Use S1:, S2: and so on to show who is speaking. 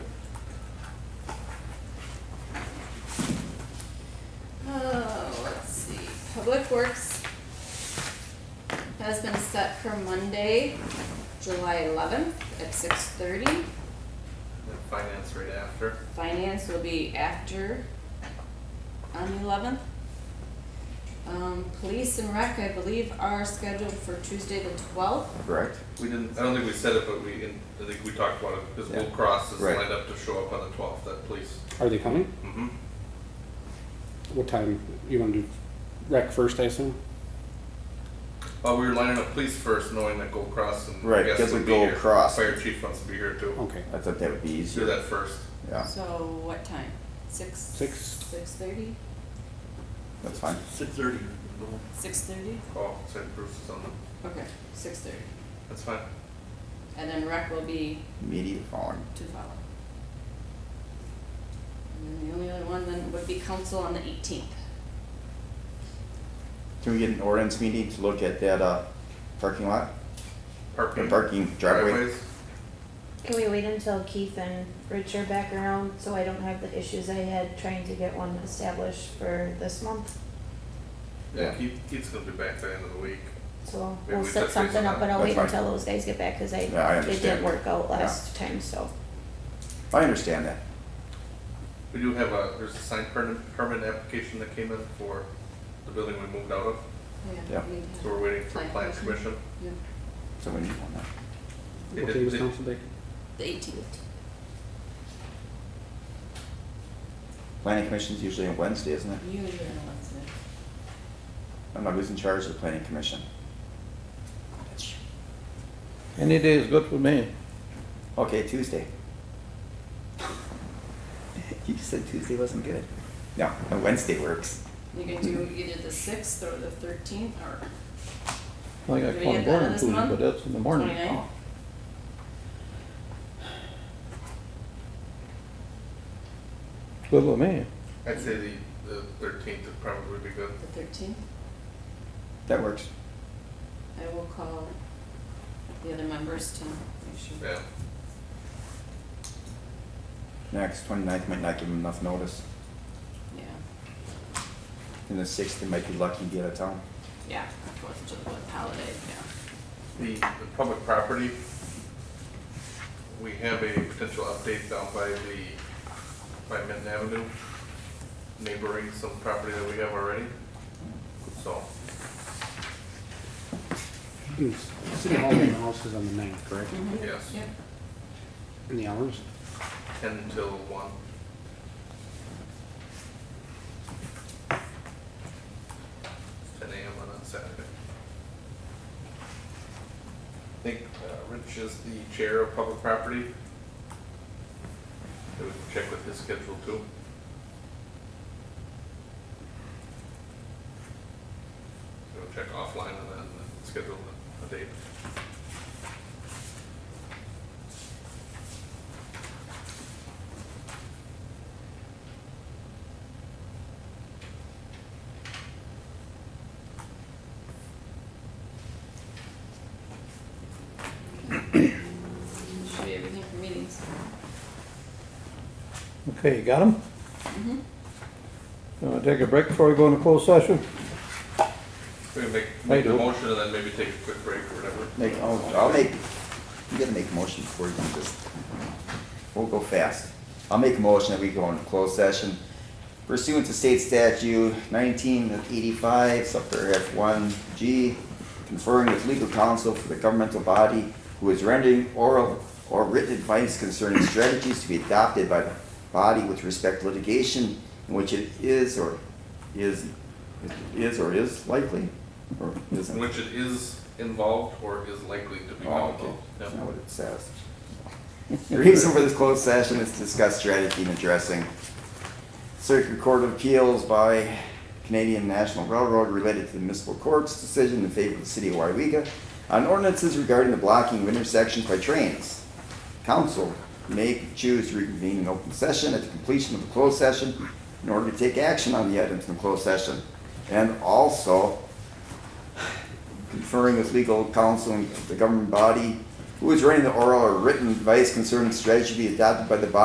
S1: Oh, Public Works has been set for Monday, July eleventh at six thirty.
S2: And finance right after.
S1: Finance will be after on the eleventh. Um, police and rec, I believe, are scheduled for Tuesday the twelfth.
S3: Correct.
S2: We didn't, I don't think we said it, but we, in- I think we talked about it, because
S3: Yeah.
S2: Will Cross is
S3: Right.
S2: lined up to show up on the twelfth, that police.
S4: Are they coming?
S2: Mm-hmm.
S4: What time? You want to do rec first, I assume?
S2: Well, we were lining up police first, knowing that Gold Cross and
S3: Right,
S2: guests
S3: because we
S2: would be
S3: Gold
S2: here.
S3: Cross. Oh.
S2: Fire chief wants to be here too.
S4: Okay.
S3: I thought that would be
S2: Do
S3: easier.
S2: that first.
S3: Yeah,
S1: So what time? Six?
S4: Six.
S1: Six thirty?
S3: that's fine.
S5: Six thirty.
S1: Six thirty?
S2: Oh, sorry, Bruce is on the,
S1: Okay, six thirty.
S2: that's fine.
S1: And then rec will be
S3: Media following.
S1: to follow. And then the only other one then would be council on the eighteenth.
S3: Can we get an ordinance meeting to look at that, uh, parking lot?
S2: Parking.
S3: Or parking driveway?
S2: driveways.
S6: Can we wait until Keith and Rich are back around, so I don't have the issues I had trying to get one established for this month?
S2: Yeah,
S3: Yeah.
S2: Keith, Keith's gonna be back by the end of the week.
S6: So
S2: Maybe we
S6: we'll
S2: touch
S6: set
S2: base
S6: something
S2: on
S6: up,
S2: that.
S6: but I'll wait
S3: That's fine.
S6: until those guys get back, cause I,
S3: Yeah, I
S6: it
S3: understand.
S6: didn't work out
S3: Yeah.
S6: last time, so.
S3: I understand that.
S2: We do have a, there's a signed permit, permit application that came in for the building we moved out of,
S3: Yeah.
S1: we-
S2: so we're waiting for
S1: Plan
S2: plan
S1: commission.
S2: commission.
S1: Yeah.
S3: So we need one now.
S2: They
S4: What
S2: did-
S4: day was
S2: they-
S4: council day?
S1: The eighteenth.
S3: Planning commission's usually on Wednesday, isn't it?
S1: Usually on Wednesday.
S3: I'm not losing charge of the planning commission.
S5: Any day is good for me.
S3: Okay, Tuesday. You said Tuesday wasn't good. No, no, Wednesday works.
S1: You can do either the sixth or the thirteenth or
S5: I
S1: Do
S5: got
S1: we
S5: one
S1: get that
S5: born
S1: this
S5: Tuesday,
S1: month?
S5: but that's in the morning.
S1: twenty-ninth.
S5: It's Good with me.
S2: I'd say the, the thirteenth would probably be good.
S1: The thirteenth,
S3: That works.
S1: I will call the other members to make sure.
S2: Yeah,
S3: Next, 29th might not give them enough notice.
S1: Yeah,
S3: And the sixth, they might be lucky to get out of town.
S1: yeah, Fourth of July holiday, yeah.
S2: the, the public property, we have a potential update down by the, by Minton Avenue, neighboring some property that we have already, so.
S4: Mm, City Hall and the house is on the ninth, correct?
S1: Mhm.
S2: Yes.
S1: Yep.
S4: In the hours?
S2: ten till one. Ten AM on a Saturday. I think uh, Rich is the chair of public property. So we can check with his schedule too. So we'll check offline and then schedule a- a date.
S1: Should be everything for meetings.
S5: Okay, you got them?
S1: Mm-hmm.
S5: Want to take a break before we go into closed session?
S2: We can make, make the
S5: do.
S2: motion and then maybe take a quick break or whatever.
S3: Make, I'll, I'll make, you gotta make a motion before you can just, we'll go fast. I'll make a motion that we go into closed session pursuant to state statute nineteen eighty-five, subparagraph one G, conferring with legal counsel for the governmental body who is rendering oral or written advice concerning strategies to be adopted by the body with respect to litigation in which it is or is, is or is likely, or isn't.
S2: Which it is involved or is likely to be
S3: Oh, okay,
S2: involved. Yeah.
S3: that's not what it says. The reason for this closed session is to discuss strategy in addressing Circuit Court of Appeals by Canadian National Railroad related to the municipal court's decision in favor of the city of Wyega on ordinances regarding the blocking of intersections by trains. Council may choose to reconvene an open session at the completion of the closed session in order to take action on the items in the closed session. And also, conferring with legal counsel and the government body who is running the oral or written advice concerning strategy to be adopted by the body